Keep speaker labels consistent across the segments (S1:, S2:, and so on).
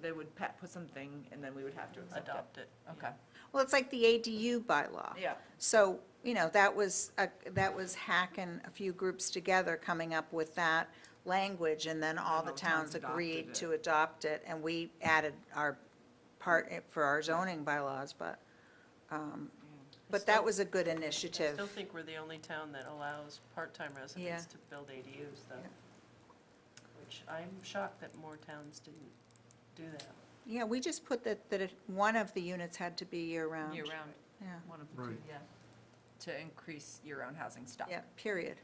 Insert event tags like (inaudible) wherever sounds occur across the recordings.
S1: they would pa- put something, and then we would have to accept it.
S2: adopt it, okay.
S3: Well, it's like the ADU bylaw.
S1: Yeah.
S3: So, you know, that was, a- that was Hack and a few groups together coming up with that language, and then all the
S1: all the towns
S3: towns agreed
S1: adopted
S3: to adopt it, and we added our part i- for our zoning bylaws, but, um, but that was a good
S2: I still
S3: initiative.
S2: think we're the only town that allows part-time
S3: Yeah.
S2: residents to build ADUs, though.
S3: Yeah.
S2: Which I'm shocked that more towns didn't do that.
S3: Yeah, we just put that, that it- one of the units had to be year-round.
S4: Year-round,
S3: Yeah,
S4: one of the two,
S5: Right.
S4: yeah, to increase year-round housing stock.
S3: yeah, period.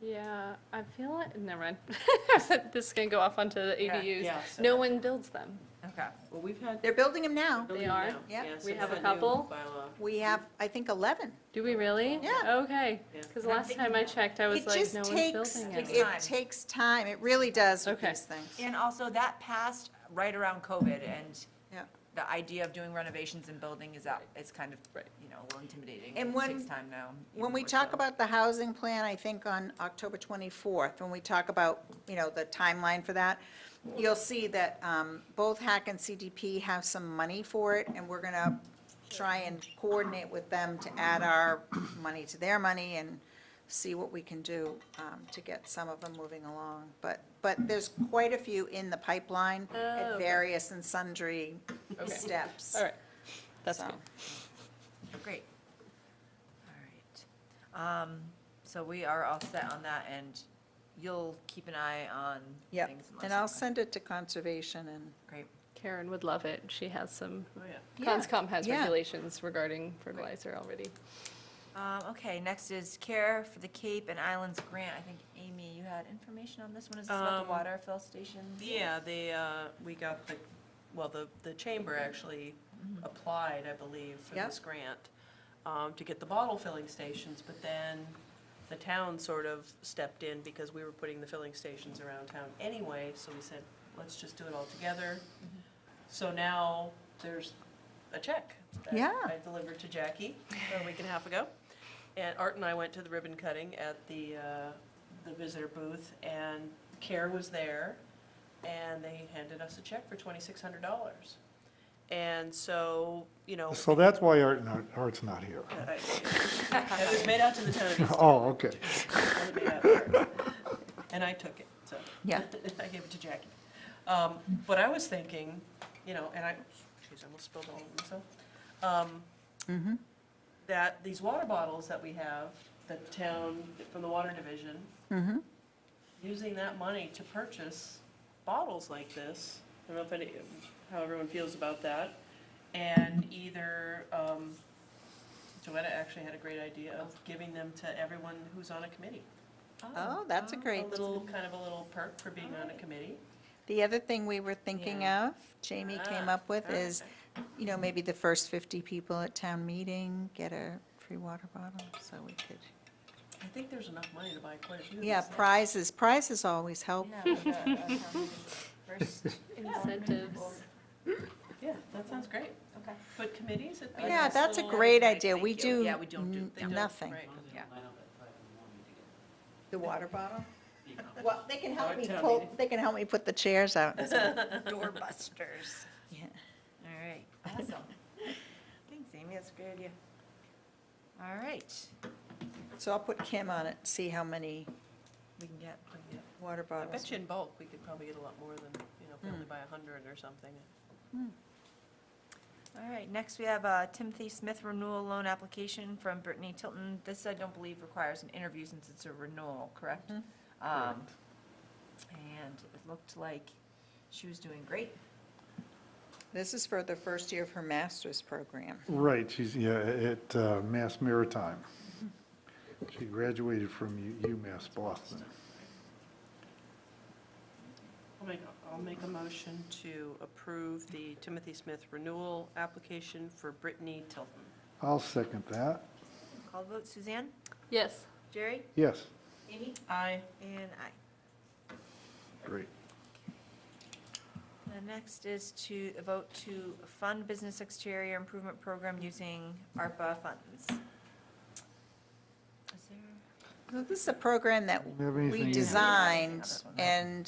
S6: Yeah, I feel like, never mind. (laughs) This is gonna go off onto the
S4: Yeah,
S6: ADUs.
S2: yeah, so-
S6: No one builds them.
S4: Okay.
S2: Well, we've had.
S3: They're building them now.
S2: building
S6: They are?
S2: now,
S3: Yeah.
S2: yes,
S6: We
S2: it's
S6: have a
S2: new
S6: couple?
S2: bylaw.
S3: We have, I think, 11.
S6: Do we really?
S3: Yeah.
S6: Okay,
S2: Yeah.
S6: because last time I checked, I was
S3: It
S6: like,
S3: just
S6: no one's
S3: takes,
S6: building
S4: Takes
S6: it.
S3: it
S4: time.
S3: takes time, it really does with
S6: Okay.
S3: these things.
S4: And also, that passed right around COVID, and
S3: Yeah.
S4: the idea of doing renovations and building is out, is kind of,
S6: Right.
S4: you know, a little intimidating.
S3: And
S4: It
S3: when-
S4: Takes time now. even
S3: When we
S4: more
S3: talk
S4: so.
S3: about the housing plan, I think on October 24th, when we talk about, you know, the timeline for that, you'll see that um, both Hack and CDP have some money for it, and we're going to try and coordinate with them to add our money to their money and see what we can do um, to get some of them moving along. But, but there's quite a few in the pipeline
S6: Oh,
S3: at
S6: okay.
S3: various and sundry
S6: Okay.
S3: steps.
S6: All right, that's
S3: So,
S6: good.
S4: Oh, Great. All right. Um, So we are all set on that, and you'll keep an eye on
S3: Yep,
S4: things. unless
S3: and I'll
S4: something-
S3: send it to conservation and.
S4: Great.
S6: Karen would love it. She has some,
S2: Oh, yeah.
S3: Yeah,
S6: Conscom has
S3: yeah.
S6: regulations regarding fertilizer already.
S4: Um, Okay, next is Care for the Cape and Islands Grant. I think, Amy, you had information on this one. Is this about
S2: Um,
S4: the water fill stations?
S2: Yeah, they, uh, we got the, well, the, the chamber actually applied, I believe, for
S3: Yep.
S2: this grant um, to get the bottle filling stations, but then the town sort of stepped in because we were putting the filling stations around town anyway, so we said, let's just do it all together. So now there's a check that
S3: Yeah.
S2: I delivered to Jackie a week and a half ago. And Art and I went to the ribbon cutting at the, uh, the visitor booth, and CARE was there, and they handed us a check for twenty-six hundred dollars. And so, you know. (laughs)
S5: So that's why Art, not- Art's not here.
S2: I- It was made out to the town of East
S5: Oh, okay.
S2: and made out to her. And I took it, so. (laughs)
S3: Yeah.
S2: I gave it to Jackie. Um, But I was thinking, you know, and I, geez, I almost spilled all of myself. Um,
S3: Mm-hmm.
S2: That these water bottles that we have, that the town, from the water division, using that money to purchase bottles like this, I don't know if any, how everyone feels about that, and either, um, Joetta actually had a great idea of giving them to everyone who's on a committee.
S3: Oh, that's a
S2: A
S3: great,
S2: little, kind of a little perk for being on a committee.
S3: the other thing we were thinking of, Jamie came
S2: Ah,
S3: up with, is,
S2: okay.
S3: you know, maybe the first 50 people at town meeting get a free water bottle, so we could,
S2: I think there's enough money to buy quite a few of these.
S3: yeah,
S2: things.
S3: prizes, prizes always help.
S4: Yeah, with the, uh, town first. (laughs)
S6: Incentives.
S2: Yeah, that sounds great.
S4: Okay.
S2: But committees, it'd be a
S3: Yeah,
S2: nice
S3: that's a
S2: little-
S3: great idea, we
S4: Thank you.
S3: do
S4: Yeah, we don't do-
S3: n-
S4: they don't,
S3: nothing.
S2: Right, 'cause
S4: Yeah.
S3: The water bottle? Well, they can help
S2: Or
S3: me
S2: town
S3: pull,
S2: meeting.
S3: they can help me put the chairs out.
S4: Doorbusters.
S3: Yeah.
S4: All right, awesome. Thanks, Amy, that's a good idea. All right,
S3: So I'll put Kim on it, see how many
S4: we can get,
S2: we can get-
S3: water
S2: I
S3: bottles.
S2: bet you in bulk, we could probably get a lot more than, you know, if we only buy a hundred or something.
S4: all right, next we have uh, Timothy Smith renewal loan application from Brittany Tilton. This I don't believe requires an interview since it's a renewal, correct?
S3: Mhm.
S4: Um, And it looked like she was doing great.
S3: This is for the first year of her master's program.
S5: Right, she's, yeah, at uh, Mass Maritime. She graduated from U- UMass Boston.
S2: I'll make, I'll make a motion to approve the Timothy Smith renewal application for Brittany Tilton.
S5: I'll second that.
S4: Call vote, Suzanne?
S6: Yes,
S4: Jerry?
S5: Yes,
S4: Amy?
S2: Aye.
S4: And I.
S5: great.
S4: The next is to vote to fund business exterior improvement program using ARPA funds. Is there?
S3: So This is a program that
S5: Have anything
S3: we
S5: in-
S3: designed,
S4: Another one, right?
S3: and